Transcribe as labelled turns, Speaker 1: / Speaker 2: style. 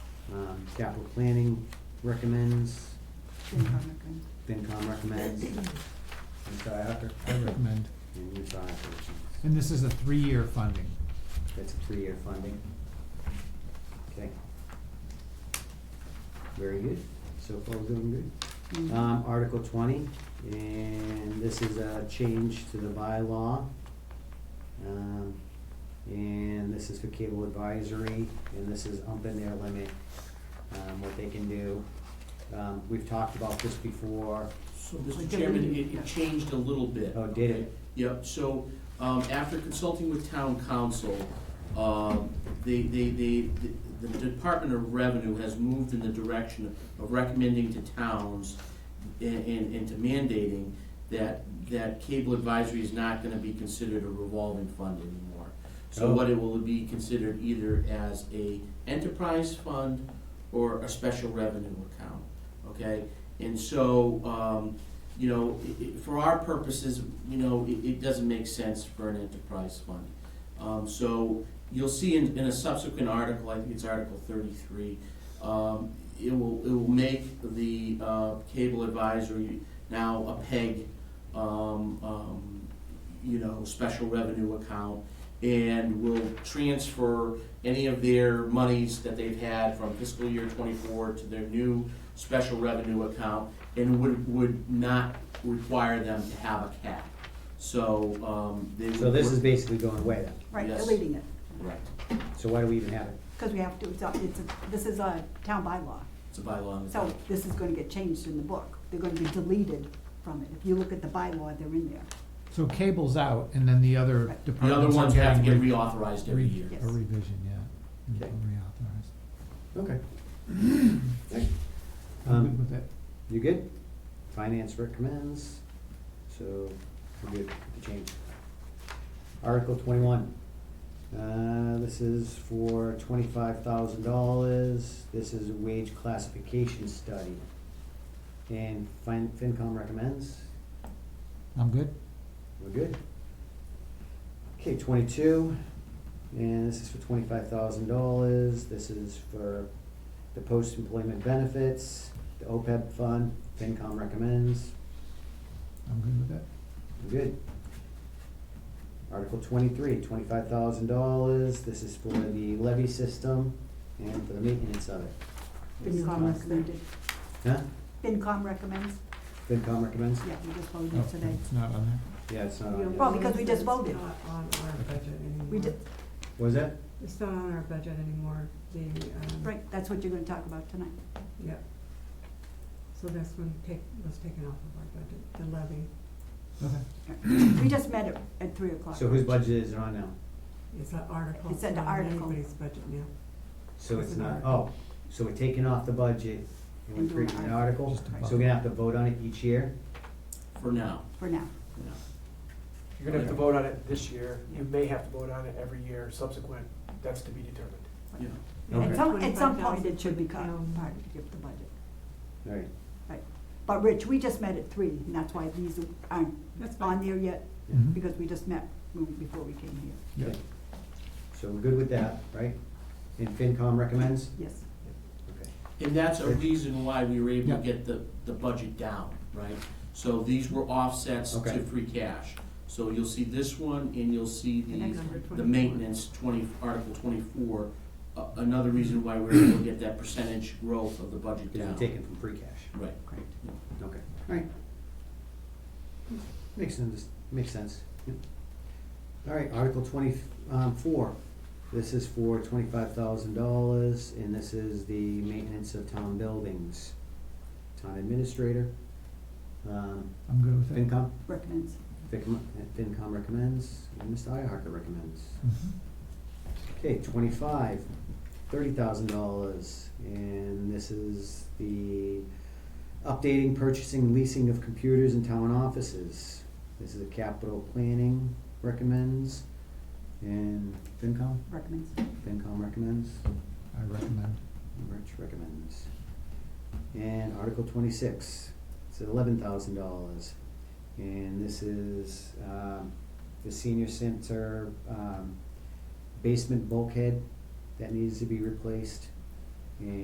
Speaker 1: Um, Capital planning recommends,
Speaker 2: FinCom recommend.
Speaker 1: FinCom recommends, Woodstock Hacker,
Speaker 3: I recommend.
Speaker 1: and Woodstock Hacker. recommends.
Speaker 3: And this is a three-year funding.
Speaker 1: That's a three-year funding. Okay. Very good. So far, we're doing good.
Speaker 2: Mhm.
Speaker 1: Um, Article twenty, and this is a change to the bylaw. Um, and this is for cable advisory, and this is umping their limit, um, what they can do. Um, we've talked about this before.
Speaker 4: So,
Speaker 2: Like
Speaker 4: Mr.
Speaker 2: the
Speaker 4: Chairman,
Speaker 2: menu,
Speaker 4: it,
Speaker 2: yeah.
Speaker 4: it changed a little bit.
Speaker 1: Oh, did it?
Speaker 4: Yep, so, um, after consulting with town council, um, the, the, the, the the Department of Revenue has moved in the direction of recommending to towns and, and, and to mandating that, that cable advisory is not gonna be considered a revolving fund anymore. So
Speaker 1: Oh.
Speaker 4: what it will be considered either as a enterprise fund or a special revenue account, okay? And so, um, you know, i- i- for our purposes, you know, it, it doesn't make sense for an enterprise fund. Um, so you'll see in, in a subsequent article, I think it's Article thirty-three, um, it will, it will make the, uh, cable advisory now a PEG, um, um, you know, special revenue account, and will transfer any of their monies that they've had from fiscal year twenty-four to their new special revenue account, and would, would not require them to have a cap. So, um, they would.
Speaker 1: So this is basically going away then.
Speaker 2: Right,
Speaker 4: Yes.
Speaker 2: deleting it,
Speaker 4: Right,
Speaker 1: So why do we even have it?
Speaker 2: because we have to, it's, a- it's, a- this is a town bylaw.
Speaker 4: it's a bylaw in the
Speaker 2: So this is gonna get changed in the book. They're gonna be deleted from it. If you look at the bylaw, they're in there.
Speaker 3: So cable's out, and then the other
Speaker 2: Right.
Speaker 4: The other
Speaker 3: departments are
Speaker 4: ones have to get
Speaker 3: getting re-
Speaker 4: reauthorized every
Speaker 3: re-
Speaker 4: year.
Speaker 2: Yes.
Speaker 3: A revision, yeah, and
Speaker 1: Okay.
Speaker 3: reauthorized.
Speaker 1: Okay.
Speaker 3: I'm
Speaker 1: Um,
Speaker 3: good with it.
Speaker 1: You good? Finance recommends, so we're good with the change. Article twenty-one. Uh, this is for twenty-five thousand dollars. This is a wage classification study. And Fin- FinCom recommends,
Speaker 3: I'm good.
Speaker 1: we're good. Okay, twenty-two, and this is for twenty-five thousand dollars. This is for the post-employment benefits, the OPEB fund, FinCom recommends.
Speaker 3: I'm good with it.
Speaker 1: Good. Article twenty-three, twenty-five thousand dollars, this is for the levy system and for the maintenance of it.
Speaker 2: FinCom recommended.
Speaker 1: Huh?
Speaker 2: FinCom recommends,
Speaker 1: FinCom recommends?
Speaker 2: yeah, we just voted
Speaker 3: Oh,
Speaker 2: it today.
Speaker 3: It's not on there.
Speaker 1: Yeah, it's not
Speaker 5: Uh,
Speaker 1: on
Speaker 2: Well,
Speaker 1: yet.
Speaker 2: because we just
Speaker 5: It's
Speaker 2: voted.
Speaker 5: not on our budget anymore.
Speaker 2: We did,
Speaker 1: Was that?
Speaker 5: It's not on our budget anymore, the, um.
Speaker 2: right, that's what you're gonna talk about tonight.
Speaker 5: Yeah. So this one take, was taken off of our budget, the levy
Speaker 3: Okay.
Speaker 2: We just met at, at three o'clock.
Speaker 1: So whose budget is it on now?
Speaker 5: It's an article.
Speaker 2: It's an
Speaker 5: not on
Speaker 2: article.
Speaker 5: Anybody's budget now.
Speaker 1: So it's
Speaker 5: It's
Speaker 1: not,
Speaker 5: an
Speaker 1: oh, so we're taking off the budget and
Speaker 2: And
Speaker 1: we're
Speaker 2: doing
Speaker 1: creating an
Speaker 2: article.
Speaker 1: article?
Speaker 3: Just a
Speaker 1: So we're gonna have to vote on it each year?
Speaker 4: For now,
Speaker 2: For now.
Speaker 4: for now.
Speaker 6: You're gonna have to
Speaker 1: Okay.
Speaker 6: vote on it this year, you may have to vote on it every year subsequent, that's to be determined.
Speaker 4: Yeah.
Speaker 1: Okay.
Speaker 2: At some, at some point,
Speaker 5: $25,000
Speaker 2: it should be cut,
Speaker 5: um,
Speaker 2: part of the budget.
Speaker 1: Alright,
Speaker 2: Right, but Rich, we just met at three, and that's why these aren't
Speaker 5: That's fine.
Speaker 2: on there yet,
Speaker 1: Yeah.
Speaker 3: Mhm.
Speaker 2: because we just met before we came here,
Speaker 3: Yeah.
Speaker 1: okay. So we're good with that, right? And FinCom recommends?
Speaker 2: yes.
Speaker 1: Okay.
Speaker 4: And that's a reason why we were able
Speaker 3: Yeah.
Speaker 4: to get the, the budget down, right? So these were offsets
Speaker 1: Okay.
Speaker 4: to free cash. So you'll see this one and you'll see
Speaker 5: The next
Speaker 4: the,
Speaker 5: one,
Speaker 4: the
Speaker 5: 24.
Speaker 4: maintenance twenty, Article twenty-four. A- Another reason why we were able to get that percentage growth of the budget
Speaker 1: Because
Speaker 4: down.
Speaker 1: we're taking from free cash.
Speaker 4: Right.
Speaker 2: Correct.
Speaker 1: Okay, alright. Makes sense, makes sense. Yep. Alright, Article twenty-four, this is for twenty-five thousand dollars, and this is the maintenance of town buildings. Town administrator, um,
Speaker 3: I'm good with it.
Speaker 1: FinCom,
Speaker 2: Recommends,
Speaker 1: FinCom FinCom recommends, and Mr. Iarka recommends.
Speaker 3: Mhm.
Speaker 1: Okay, twenty-five, thirty thousand dollars, and this is the updating, purchasing, leasing of computers in town offices. This is a capital planning recommends, and FinCom,
Speaker 2: recommends,
Speaker 1: FinCom recommends,
Speaker 3: I recommend.
Speaker 1: Rich recommends. And Article twenty-six, it's eleven thousand dollars, and this is, um, the senior center, um, basement bulkhead that needs to be replaced.